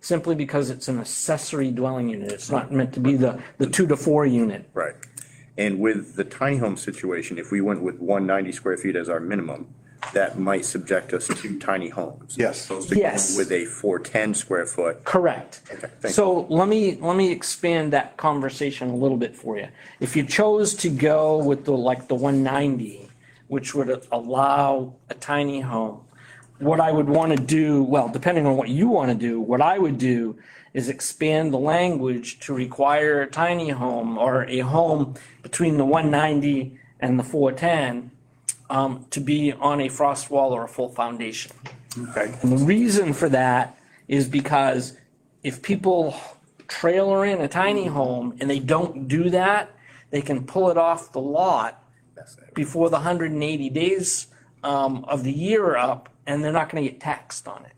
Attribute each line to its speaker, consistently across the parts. Speaker 1: simply because it's an accessory dwelling unit. It's not meant to be the, the two to four unit.
Speaker 2: Right. And with the tiny home situation, if we went with one ninety square feet as our minimum, that might subject us to tiny homes.
Speaker 3: Yes.
Speaker 2: As opposed to going
Speaker 1: Yes.
Speaker 2: With a four ten square foot.
Speaker 1: Correct.
Speaker 2: thank
Speaker 1: So let me, let me expand that conversation a little bit for you. If you chose to go with the, like the one ninety, which would allow a tiny home, what I would want to do, well, depending on what you want to do, what I would do is expand the language to require a tiny home or a home between the one ninety and the four ten um, to be on a frost wall or a full foundation.
Speaker 3: Okay.
Speaker 1: And the reason for that is because if people trailer in a tiny home and they don't do that, they can pull it off the lot before the 180 days um, of the year are up, and they're not going to get taxed on it.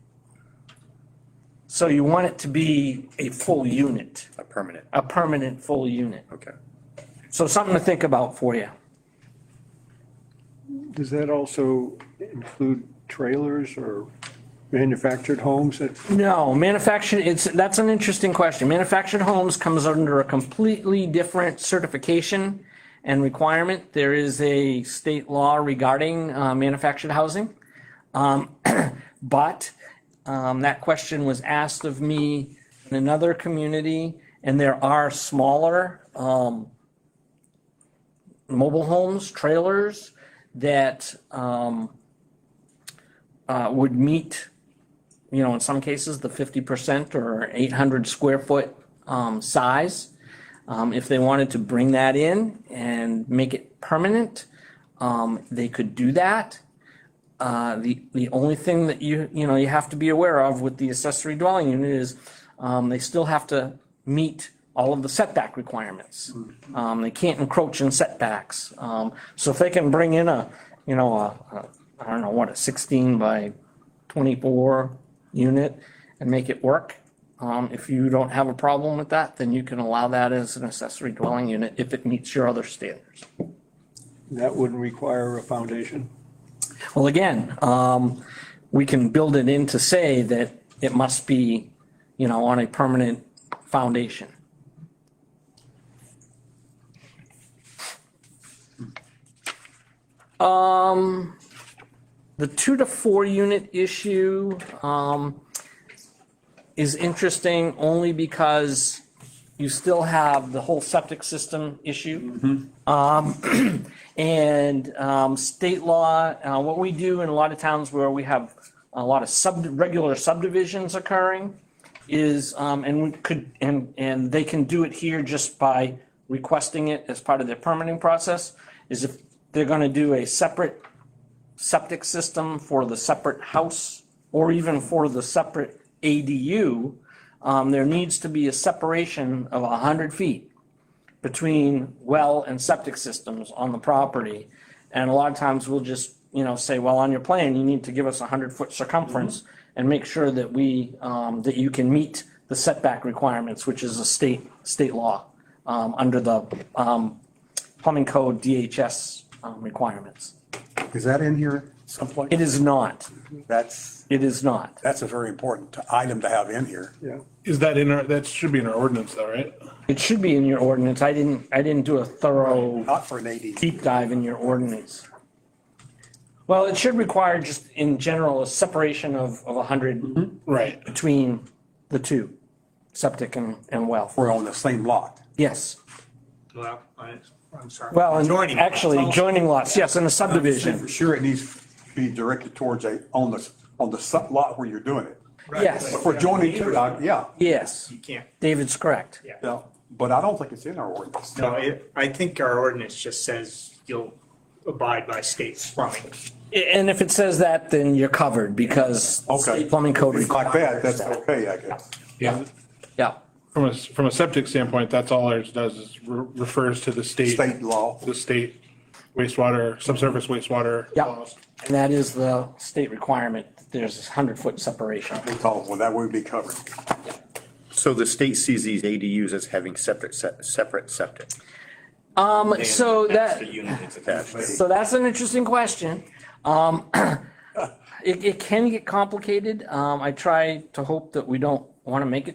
Speaker 1: So you want it to be a full unit,
Speaker 2: A permanent,
Speaker 1: a permanent full unit.
Speaker 2: okay.
Speaker 1: So something to think about for you.
Speaker 3: Does that also include trailers or manufactured homes that?
Speaker 1: No, manufactured, it's, that's an interesting question. Manufactured homes comes under a completely different certification and requirement. There is a state law regarding uh, manufactured housing. Um, But um, that question was asked of me in another community, and there are smaller um, mobile homes, trailers that um, uh, would meet you know, in some cases, the fifty percent or eight hundred square foot um, size. Um, if they wanted to bring that in and make it permanent, um, they could do that. Uh, the the only thing that you you know you have to be aware of with the accessory dwelling unit is um, they still have to meet all of the setback requirements. Um, they can't encroach in setbacks. Um, so if they can bring in a you know a, a I don't know what a sixteen by 24 unit and make it work. Um, If you don't have a problem with that, then you can allow that as an accessory dwelling unit if it meets your other standards.
Speaker 3: That wouldn't require a foundation?
Speaker 1: Well, again, um, we can build it in to say that it must be, you know, on a permanent foundation. Um, the two to four unit issue, um, is interesting only because you still have the whole septic system issue. And um, state law, uh, what we do in a lot of towns where we have a lot of sub, regular subdivisions occurring is, um, and we could, and, and they can do it here just by requesting it as part of their permitting process, is if they're gonna do a separate septic system for the separate house or even for the separate ADU, um, there needs to be a separation of a hundred feet between well and septic systems on the property. And a lot of times we'll just, you know, say, well, on your plan, you need to give us a hundred foot circumference and make sure that we, um, that you can meet the setback requirements, which is a state, state law, um, under the, um, plumbing code DHS, um, requirements.
Speaker 4: Is that in here someplace?
Speaker 1: It is not,
Speaker 4: That's,
Speaker 1: it is not.
Speaker 4: that's a very important t- item to have in here.
Speaker 3: Yeah.
Speaker 5: Is that in our, that should be in our ordinance though, right?
Speaker 1: It should be in your ordinance. I didn't, I didn't do a thorough
Speaker 4: Not for an AD.
Speaker 1: deep dive in your ordinance. Well, it should require just in general a separation of, of a hundred
Speaker 5: Right.
Speaker 1: between the two, septic and, and well.
Speaker 4: We're on the same lot.
Speaker 1: Yes.
Speaker 6: Well, I- I'm sorry.
Speaker 1: Well, and
Speaker 6: Joining.
Speaker 1: actually joining lots, yes, in a subdivision.
Speaker 4: For sure, it needs to be directed towards a, on the, on the sub lot where you're doing it.
Speaker 6: Right.
Speaker 1: yes.
Speaker 4: But for joining two, I- yeah,
Speaker 1: Yes,
Speaker 6: You can't.
Speaker 1: David's correct.
Speaker 6: Yeah.
Speaker 4: yeah, but I don't think it's in our ordinance.
Speaker 6: No, it- I think our ordinance just says you'll abide by state plumbing.
Speaker 1: A- And if it says that, then you're covered because
Speaker 4: Okay.
Speaker 1: state plumbing code
Speaker 4: If it's Like that,
Speaker 1: requires
Speaker 4: that's
Speaker 1: that.
Speaker 4: okay, I guess.
Speaker 5: Yeah.
Speaker 1: Yeah,
Speaker 5: From a, from a septic standpoint, that's all ours does is re- refers to the state.
Speaker 4: State law.
Speaker 5: The state wastewater, subsurface wastewater.
Speaker 1: yeah.
Speaker 5: laws.
Speaker 1: And that is the state requirement. There's this hundred foot separation.
Speaker 4: It's all- Well, that would be covered.
Speaker 2: So the state sees these ADUs as having separate, se- separate septic.
Speaker 1: Um, so that.
Speaker 7: The unit that's attached.
Speaker 2: attached.
Speaker 1: So that's an interesting question. Um, It, it can get complicated. Um, I try to hope that we don't want to make it